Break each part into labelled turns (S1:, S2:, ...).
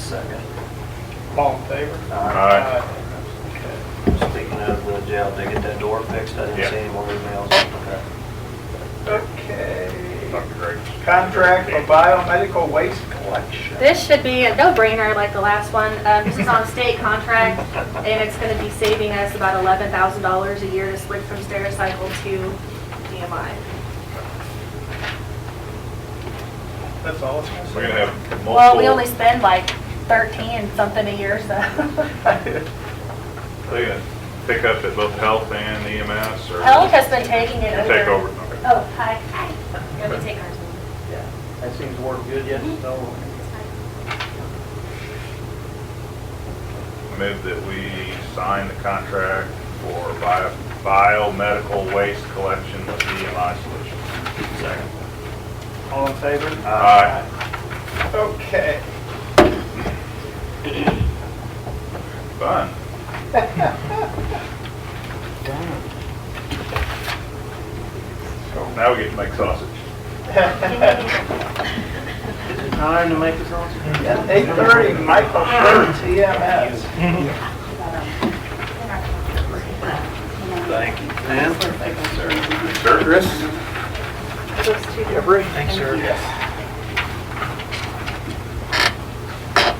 S1: Second.
S2: All in favor?
S1: Aye.
S2: Okay.
S1: Speaking of the jail, did they get that door fixed? I didn't
S3: Yeah.
S1: see any more emails. Okay.
S2: Okay.
S3: Dr. Greggs.
S2: Contract for biomedical waste collection.
S4: This should be a no-brainer like the last one. Um, This is on a state contract, and it's going to be saving us about $11,000 a year to switch from Stericycle to E DMI.
S2: That's all it's gonna say.
S3: We're gonna have multiple.
S4: Well, we only spend like 13 something a year, so.
S3: They gonna pick up at both health and EMS or?
S4: Health has been taking it over.
S3: Take over, okay.
S4: Oh, hi. Hi. Let me take ours.
S1: Yeah, that seems to work good yet, so.
S3: I Move that we sign the contract for bio- biomedical waste collection with EMI Solutions.
S1: Second.
S2: All in favor?
S3: Aye.
S2: Okay.
S3: Fun. So Now we get to make sausage.
S1: Is it time to make the sausage?
S2: Eight thirty, Michael Schur, TMS.
S1: Thank you, ma'am. Thank you, sir.
S3: Sure.
S2: Chris?
S4: Those two.
S1: Thanks, sir. Yes.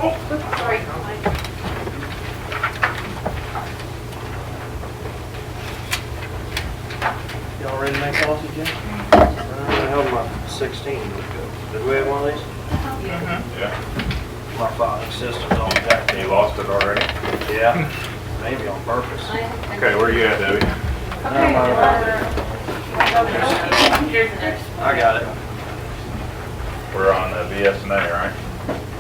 S4: Oops, Sorry.
S1: Y'all ready to make sausage yet? I held my sixteen. Did we have one of these?
S3: Yeah,
S1: My five sisters on deck.
S3: you lost it already.
S1: Yeah, maybe on purpose.
S3: Okay, where you at, Debbie?
S4: Okay, uh,
S1: I got it.
S3: We're on the BS and A, right?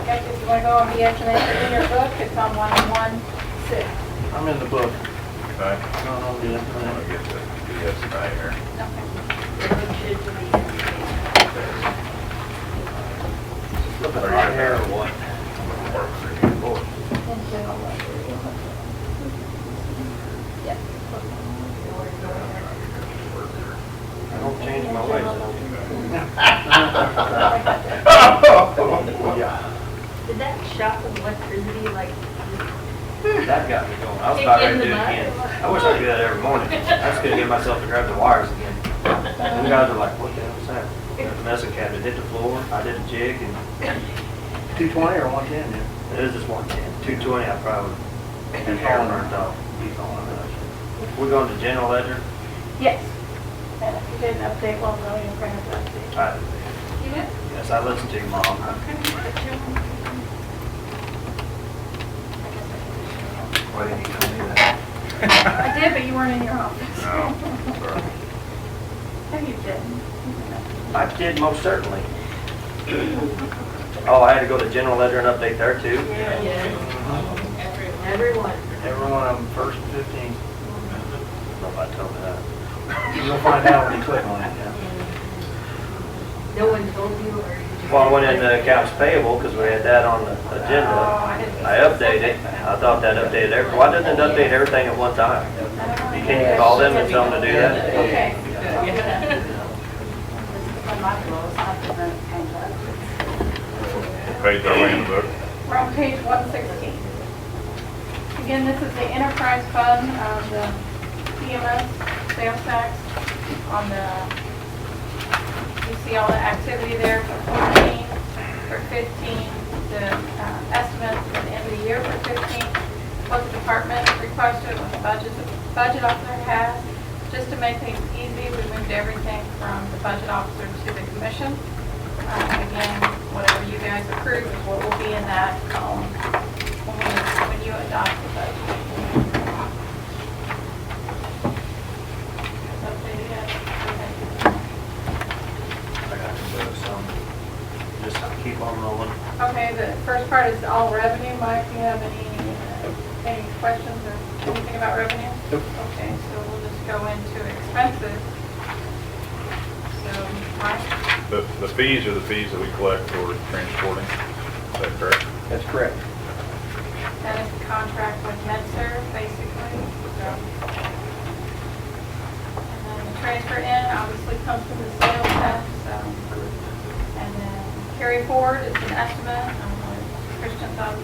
S5: Okay, if you want to go on the explanation in your book, it's on 116.
S1: I'm in the book.
S3: Okay.
S1: I don't know the other
S3: I'm
S1: one.
S3: gonna get the BS and A here.
S1: Look at my hair or what?
S3: Work for you.
S1: Lord. I don't change my ways. I don't do that. Yeah,
S6: Did that shock of electricity, like,
S1: That got me going. I was about ready to do it again. I wish I could do that every morning. I just couldn't get myself to grab the wires again. Them guys are like, what the hell is that? And The messing cabinet hit the floor. I did a jig and. Two twenty or one ten, yeah? It is just one ten. Two twenty, I probably. And hair burnt off. He's on it. We're going to general ledger.
S5: Yes. And if you did an update, well, no, you're going to have to update.
S1: I- Yes, I listened to you, mom. Why didn't you tell me that?
S5: I did, but you weren't in your office.
S3: No, sorry.
S5: No, you didn't.
S1: I did, most certainly. Oh, I had to go to general ledger and update there too?
S6: everyone?
S1: Everyone on first fifteen. Nobody told me that. You'll find out when you click on it, yeah.
S6: No one told you, or you Oh, just?
S1: Well, I went into accounts payable because we had that on the agenda. I updated, I thought that updated every, why doesn't it update everything at one time? You Can you call them and tell them to do that?
S5: Okay.
S3: Page our way in the book.
S5: We're on page 116. Again, this is the enterprise fund of the PMS sales tax on the, you see all the activity there for 14, for 15, the uh, estimate for the end of the year for 15, what the department requested, what the budget, budget officer has. Just to make things easy, we moved everything from the budget officer to the commission. Uh, Again, whatever you guys approve is what will be in that column when we- when you adopt the budget. Updated yet?
S1: I got to do some, just keep on rolling.
S5: Okay, Okay, the first part is all revenue. Mike, do you have any, uh, any questions or anything about revenue? Okay, so we'll just go into expenses. So, Mike?
S3: The, the fees are the fees that we collect for transporting. Is that correct?
S1: That's correct.
S5: That is the contract with MedServ, basically, so. And then the transfer in obviously comes from the sales tax, so. And then carry forward is an estimate, um, Christian thought